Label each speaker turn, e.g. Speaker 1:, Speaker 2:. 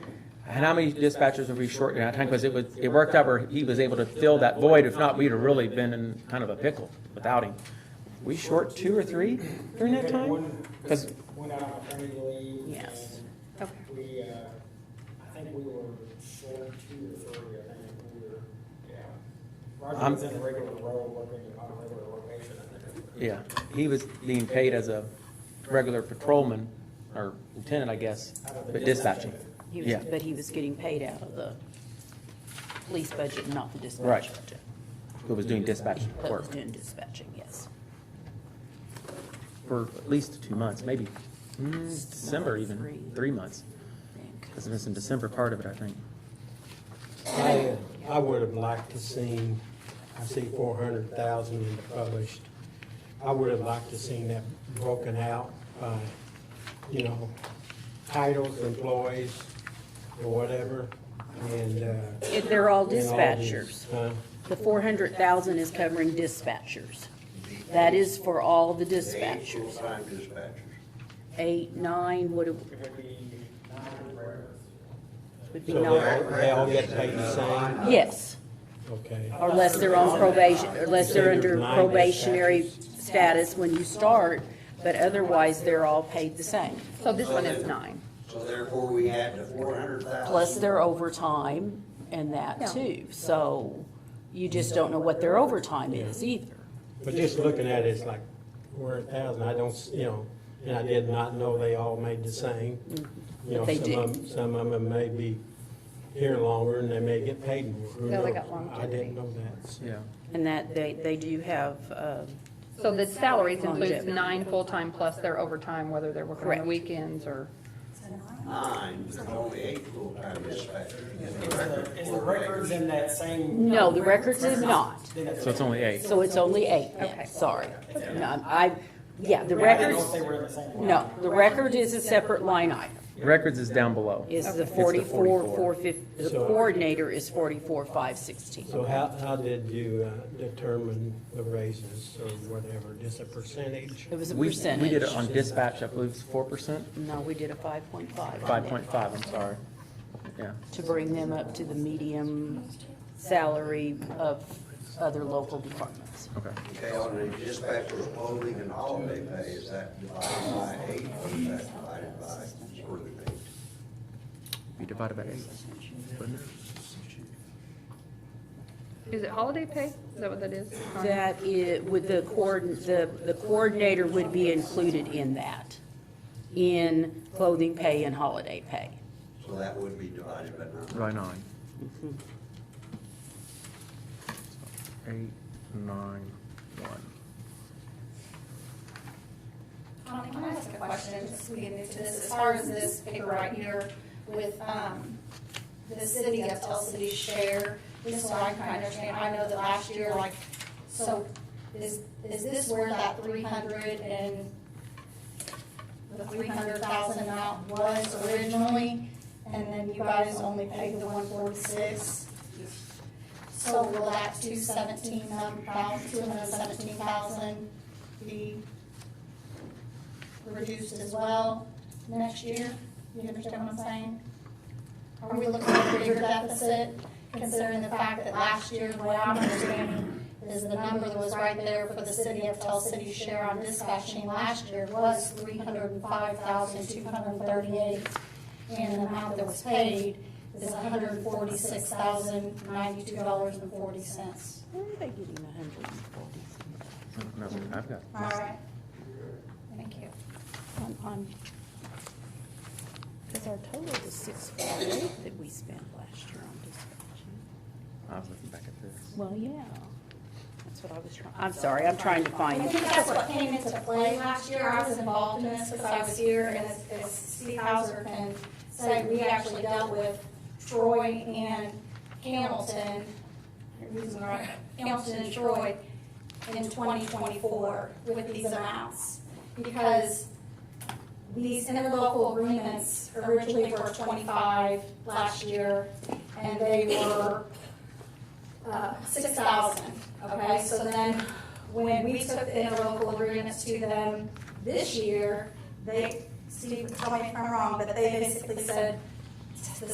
Speaker 1: Hanami dispatchers would be short on time because it was, it worked out where he was able to fill that void. If not, we'd have really been in kind of a pickle without him. We short two or three during that time?
Speaker 2: One-
Speaker 1: 'Cause-
Speaker 2: Went out on maternity leave.
Speaker 3: Yes.
Speaker 2: and
Speaker 3: Okay.
Speaker 2: We, uh, I think we were short two or three, I think we were, yeah. Roger
Speaker 1: I'm-
Speaker 2: was in a regular role, working on a regular rotation, I think.
Speaker 1: Yeah, he was being paid as a regular patrolman or lieutenant, I guess, but dispatching.
Speaker 3: He
Speaker 1: Yeah,
Speaker 3: was, but he was getting paid out of the police budget, not the dispatch
Speaker 1: Right.
Speaker 3: budget.
Speaker 1: who was doing dispatch
Speaker 3: That was
Speaker 1: work
Speaker 3: doing dispatching, yes.
Speaker 1: for at least two months, maybe, mm, December even, three months. Because it was in December part of it, I think.
Speaker 4: I, I would have liked to seen, I see four hundred thousand published. I would have liked to seen that broken out by, you know, titles, employees, or whatever, and, uh.
Speaker 3: If They're all
Speaker 4: and all these,
Speaker 3: dispatchers.
Speaker 4: huh?
Speaker 3: The four hundred thousand is covering dispatchers. That is for all the dispatchers.
Speaker 5: Full-time dispatchers.
Speaker 3: Eight, nine, what it
Speaker 2: It would be nine regulars.
Speaker 3: would be
Speaker 4: So they all,
Speaker 3: nine.
Speaker 4: they all get paid the same,
Speaker 3: Yes,
Speaker 4: okay?
Speaker 3: or unless they're on probation, unless they're under
Speaker 4: Nine
Speaker 3: probationary status when you start, but otherwise, they're all paid the same. So this one is nine.
Speaker 5: So therefore, we add the four hundred thousand.
Speaker 3: plus their overtime and that too. So you just don't know what their overtime is either.
Speaker 4: But just looking at it, it's like four hundred thousand, I don't, s- you know, and I did not know they all made the same. You know,
Speaker 3: But they
Speaker 4: some
Speaker 3: do.
Speaker 4: of 'em- Some of them may be here longer and they may get paid more. Who
Speaker 6: No, they
Speaker 4: knows?
Speaker 6: got
Speaker 4: I
Speaker 6: longevity.
Speaker 4: didn't know that. so.
Speaker 1: Yeah.
Speaker 3: And that they, they do have, uh,
Speaker 6: So the salaries includes
Speaker 3: Longevity.
Speaker 6: nine full-time plus their overtime, whether they're working on
Speaker 3: Correct.
Speaker 6: the weekends or.
Speaker 5: Nine, there's only eight full-time dispatchers. in the
Speaker 2: Is
Speaker 5: record
Speaker 2: the- Is the
Speaker 5: for
Speaker 2: records in that same?
Speaker 3: no, the records is not.
Speaker 2: Then it's-
Speaker 1: So it's only eight.
Speaker 3: So it's only eight
Speaker 6: Okay.
Speaker 3: then, sorry. No, I,
Speaker 2: I
Speaker 3: yeah, the
Speaker 2: didn't know
Speaker 3: records,
Speaker 2: if they were in the same.
Speaker 3: no, the record is a separate line item.
Speaker 1: Records is down below.
Speaker 3: Is the
Speaker 1: It's
Speaker 3: forty-four, four fifty, the
Speaker 4: So-
Speaker 3: coordinator is forty-four, five sixteen.
Speaker 4: So how, how did you uh, determine the raises or whatever, just a percentage?
Speaker 3: It was a
Speaker 1: We, we did
Speaker 3: percentage.
Speaker 1: it on dispatch, I believe it's four percent,
Speaker 3: No, we did a five point five.
Speaker 1: five point five, I'm sorry. Yeah,
Speaker 3: to bring them up to the medium salary of other local departments.
Speaker 1: okay.
Speaker 5: Okay, on the dispatcher's clothing and holiday pay, is that divided by eight or is that divided by quarterly pay?
Speaker 1: We divided by eight. wouldn't it?
Speaker 6: Is it holiday pay? Is that what that is? Or-
Speaker 3: That it, with the coord, the, the coordinator would be included in that, in clothing pay and holiday pay.
Speaker 5: So that would be divided by nine.
Speaker 1: By nine. Eight, nine, one.
Speaker 7: Connie, can I ask a question, just so we get into this, as far as this paper right here with, um, the city of Tell City share, just so I can understand, I know that last year, like, so is, is this where that three hundred and the three hundred thousand amount was originally, and then you guys only paid the one forty-six? So will that two seventeen, about two hundred seventeen thousand be reduced as well next year. You understand what I'm saying? Are we looking at a bigger deficit considering the fact that last year, what I'm understanding is the number that was right there for the city of Tell City share on dispatching last year was three hundred and five thousand, two hundred and thirty-eight. And the amount that was paid is hundred and forty-six thousand, ninety-two dollars and forty cents.
Speaker 3: Where are they getting a hundred and forty?
Speaker 1: No, I've got.
Speaker 7: All right? Thank you.
Speaker 3: On, on, because our total was six forty-eight that we spent last year on dispatching.
Speaker 1: I was looking back at this.
Speaker 3: Well, yeah, that's what I was trying, I'm sorry, I'm trying to find
Speaker 7: I
Speaker 3: it.
Speaker 7: think that's what came into play last year. I was involved in this because I was here and as- as Steve Hauser can say, we actually dealt with Troy and Hamilton, I'm using the right- Hamilton and Troy in twenty twenty-four with these amounts. Because these interlocal agreements originally were twenty-five last year and they were Uh, six thousand, okay? So then, when we took the interlocal agreements to them this year, they, Steve, tell me if I'm wrong, but they basically said, to the